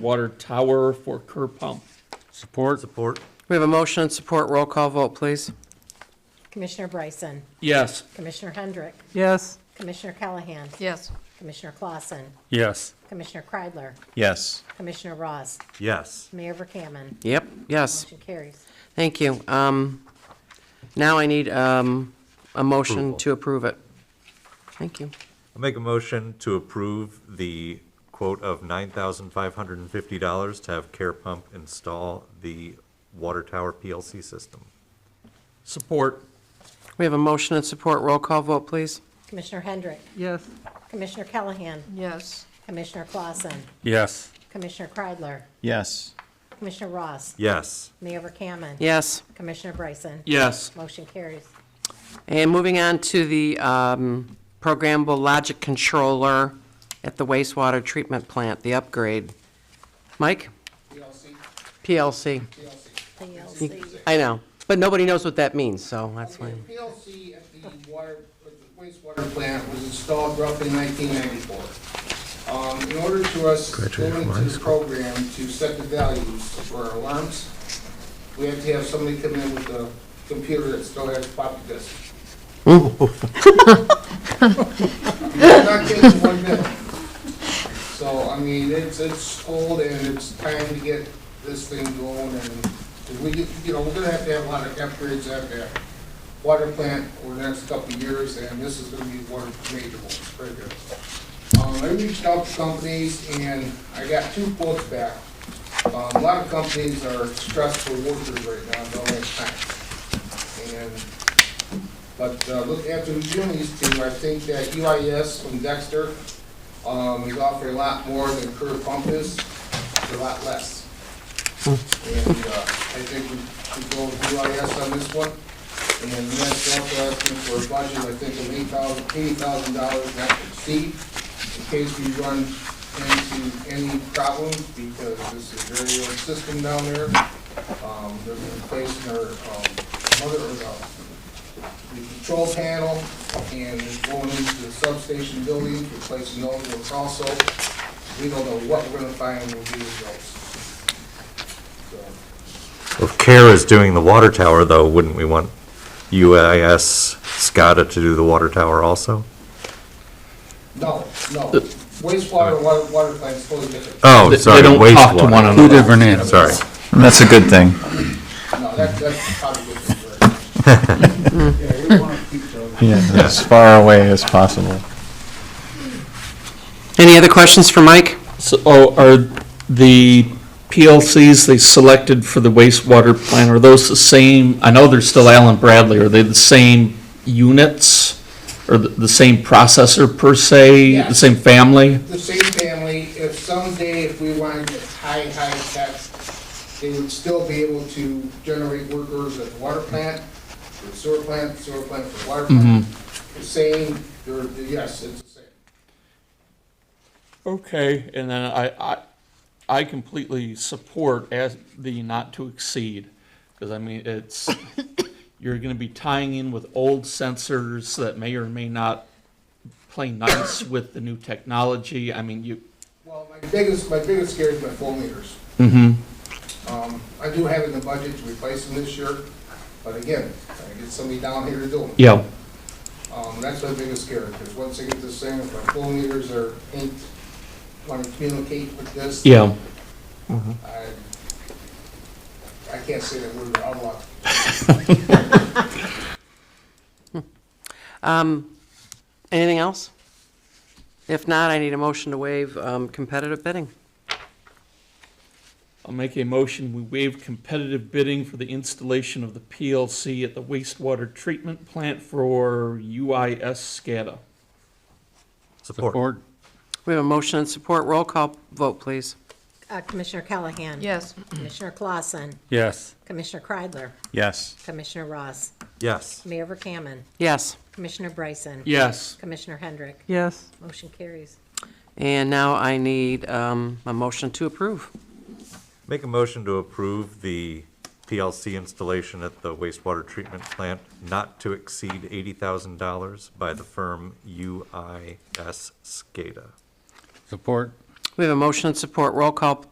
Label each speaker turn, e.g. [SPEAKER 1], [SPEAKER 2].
[SPEAKER 1] water tower for curb pump.
[SPEAKER 2] Support. Support.
[SPEAKER 3] We have a motion and support. Roll call vote, please.
[SPEAKER 4] Commissioner Bryson,
[SPEAKER 1] Yes,
[SPEAKER 4] Commissioner Hendrick,
[SPEAKER 3] Yes.
[SPEAKER 4] Commissioner Callahan,
[SPEAKER 5] Yes.
[SPEAKER 4] Commissioner Clausen,
[SPEAKER 2] Yes.
[SPEAKER 4] Commissioner Kreidler,
[SPEAKER 6] Yes.
[SPEAKER 4] Commissioner Ross,
[SPEAKER 2] Yes.
[SPEAKER 4] Mayor Verkaman.
[SPEAKER 3] Yep, yes.
[SPEAKER 4] Motion carries.
[SPEAKER 3] Thank you. Um, now I need, um, a motion to approve it. Thank you.
[SPEAKER 6] I'll make a motion to approve the quote of nine thousand five hundred and fifty dollars to have Care Pump install the water tower PLC system.
[SPEAKER 1] support.
[SPEAKER 3] We have a motion and support. Roll call vote, please.
[SPEAKER 4] Commissioner Hendrick,
[SPEAKER 3] Yes.
[SPEAKER 4] Commissioner Callahan,
[SPEAKER 5] Yes.
[SPEAKER 4] Commissioner Clausen,
[SPEAKER 2] Yes.
[SPEAKER 4] Commissioner Kreidler,
[SPEAKER 7] yes,
[SPEAKER 4] Commissioner Ross,
[SPEAKER 6] Yes.
[SPEAKER 4] Mayor Verkaman.
[SPEAKER 3] Yes.
[SPEAKER 4] Commissioner Bryson.
[SPEAKER 1] Yes,
[SPEAKER 4] Motion carries.
[SPEAKER 3] And moving on to the, um, programmable logic controller at the wastewater treatment plant, the upgrade. Mike? PLC.
[SPEAKER 4] PLC.
[SPEAKER 3] I know, but nobody knows what that means, so that's
[SPEAKER 8] The
[SPEAKER 3] why.
[SPEAKER 8] PLC at the water, at the wastewater plant was installed roughly in 1994. Um, In order to us go into the program to set the values for our alarms, we have to have somebody come in with a computer that still has floppy disks. You cannot get it in one minute. So, I mean, it's, it's old and it's time to get this thing going and if we, get- you know, we're gonna have to have a lot of upgrades at that water plant over the next couple of years, and this is gonna be one of the major ones, very good. Um, I reached out to companies, and I got two quotes back. Um, a lot of companies are stressed for workers right now, don't have time. And, but, uh, look, after reviewing these two, I think that UIS from Dexter, um, is offering a lot more than Curve Pump is, for a lot less. And, uh, I think we should go with UIS on this one. And then that's also asking for a budget, I think, of eight thousand, eighty thousand dollars, not to exceed, in case we run into any problems, because this is a very old system down there. Um, they're replacing our, um, mother, or uh, the, the control panel, and they're going into the substation building, replacing those ones also. We don't know what we're gonna find when we do those. So,
[SPEAKER 6] If Care is doing the water tower, though, wouldn't we want UIS SCADA to do the water tower also?
[SPEAKER 8] No, no. Wastewater and water, water plant's totally different.
[SPEAKER 6] Oh,
[SPEAKER 7] They- they
[SPEAKER 6] sorry,
[SPEAKER 7] don't talk to one
[SPEAKER 6] wastewater.
[SPEAKER 2] Two different ends.
[SPEAKER 6] Sorry.
[SPEAKER 7] and that's a good thing.
[SPEAKER 8] No, that, that's probably good for it.
[SPEAKER 7] Yeah, as far away as possible.
[SPEAKER 3] Any other questions for Mike?
[SPEAKER 1] So, oh, are the PLCs they selected for the wastewater plant, are those the same? I know they're still Allen Bradley, are they the same units? Or the, the same processor per se,
[SPEAKER 8] Yeah.
[SPEAKER 1] the same family?
[SPEAKER 8] The same family, if someday if we wanted to get high, high tech, they would still be able to generate workers at the water plant, the sewer plant, the sewer plant, the water plant.
[SPEAKER 1] Mm-hmm.
[SPEAKER 8] The same, they're, yes, it's the same.
[SPEAKER 1] Okay, and then I, I, I completely support as the not to exceed, because I mean, it's, you're gonna be tying in with old sensors that may or may not play nice with the new technology, I mean, you.
[SPEAKER 8] Well, my biggest, my biggest scare is my phone meters.
[SPEAKER 1] Mm-hmm.
[SPEAKER 8] Um, I do have it in the budget to replace them this year, but again, I get somebody down here to do them.
[SPEAKER 1] Yeah,
[SPEAKER 8] Um, that's my biggest scare, because once I get this thing, if my phone meters are ain't wanna communicate with this.
[SPEAKER 1] yeah,
[SPEAKER 8] I, I can't say that we're out of luck.
[SPEAKER 3] Um, anything else? If not, I need a motion to waive, um, competitive bidding.
[SPEAKER 1] I'll make a motion, we waive competitive bidding for the installation of the PLC at the wastewater treatment plant for UIS SCADA.
[SPEAKER 6] Support.
[SPEAKER 3] We have a motion and support. Roll call vote, please.
[SPEAKER 4] Uh, Commissioner Callahan.
[SPEAKER 5] Yes.
[SPEAKER 4] Commissioner Clausen,
[SPEAKER 2] Yes.
[SPEAKER 4] Commissioner Kreidler,
[SPEAKER 7] Yes.
[SPEAKER 4] Commissioner Ross,
[SPEAKER 6] Yes.
[SPEAKER 4] Mayor Verkaman,
[SPEAKER 3] Yes.
[SPEAKER 4] Commissioner Bryson.
[SPEAKER 1] Yes.
[SPEAKER 4] Commissioner Hendrick.
[SPEAKER 3] Yes.
[SPEAKER 4] Motion carries.
[SPEAKER 3] And now I need, um, a motion to approve.
[SPEAKER 6] Make a motion to approve the PLC installation at the wastewater treatment plant not to exceed eighty thousand dollars by the firm UIS SCADA.
[SPEAKER 2] Support.
[SPEAKER 3] We have a motion and support. Roll call uh,